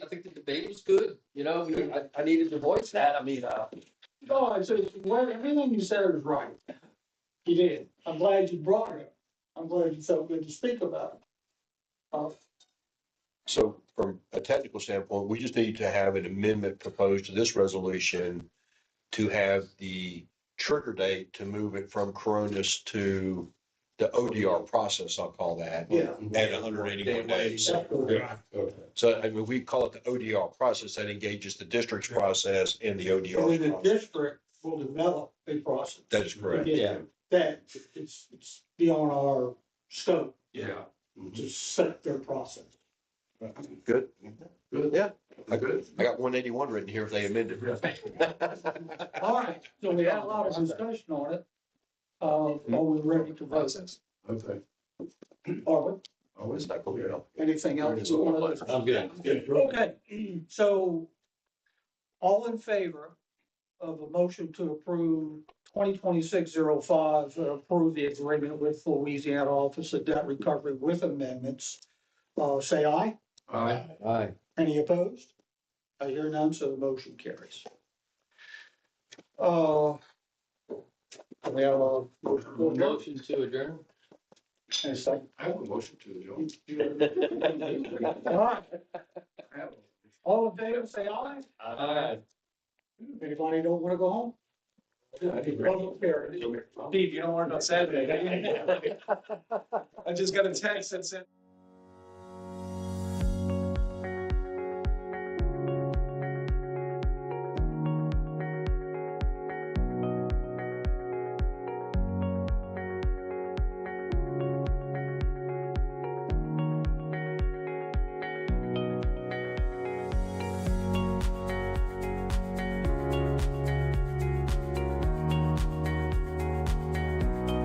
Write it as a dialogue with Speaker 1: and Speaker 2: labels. Speaker 1: Dave's good, you know, he- I, I needed to voice that, I mean, uh,
Speaker 2: No, I said, well, everything you said is right. You did. I'm glad you brought it. I'm glad you felt good to speak about it. Uh,
Speaker 3: So from a technical standpoint, we just need to have an amendment proposed to this resolution to have the trigger date to move it from Coronas to the ODR process, I'll call that.
Speaker 2: Yeah.
Speaker 3: At hundred eighty-one days. So I mean, we call it the ODR process that engages the district's process and the
Speaker 2: And then
Speaker 3: ODR.
Speaker 2: the
Speaker 3: process.
Speaker 2: district will develop a process.
Speaker 3: That is correct.
Speaker 2: to get
Speaker 1: Yeah.
Speaker 2: That it's, it's beyond our scope
Speaker 1: yeah.
Speaker 2: to set their process.
Speaker 3: Good.
Speaker 1: Good.
Speaker 3: Yeah, I
Speaker 1: Good.
Speaker 3: I got one eighty-one written here if they amended it.
Speaker 2: All right, so we had a lot of discussion on it. Uh, are we ready to vote?
Speaker 1: Okay. Oh,
Speaker 2: Are we?
Speaker 3: Always not going to.
Speaker 2: Anything else you want to?
Speaker 1: I'm good.
Speaker 2: Okay, so all in favor of a motion to approve twenty twenty-six zero five, uh, approve the agreement with Louisiana Office of Debt Recovery with amendments, uh, say aye.
Speaker 1: Aye. Aye.
Speaker 2: Any opposed? I hear none, so the motion carries. Uh, we have a motion. to adjourn?
Speaker 1: Motion to adjourn?
Speaker 2: And a second.
Speaker 1: I have a motion to adjourn.
Speaker 2: All right, all in favor, say aye.
Speaker 1: Aye.
Speaker 2: Anybody don't want to go home? Well, here, Steve, you don't want to go Saturday, do you?
Speaker 4: I just got a text that said.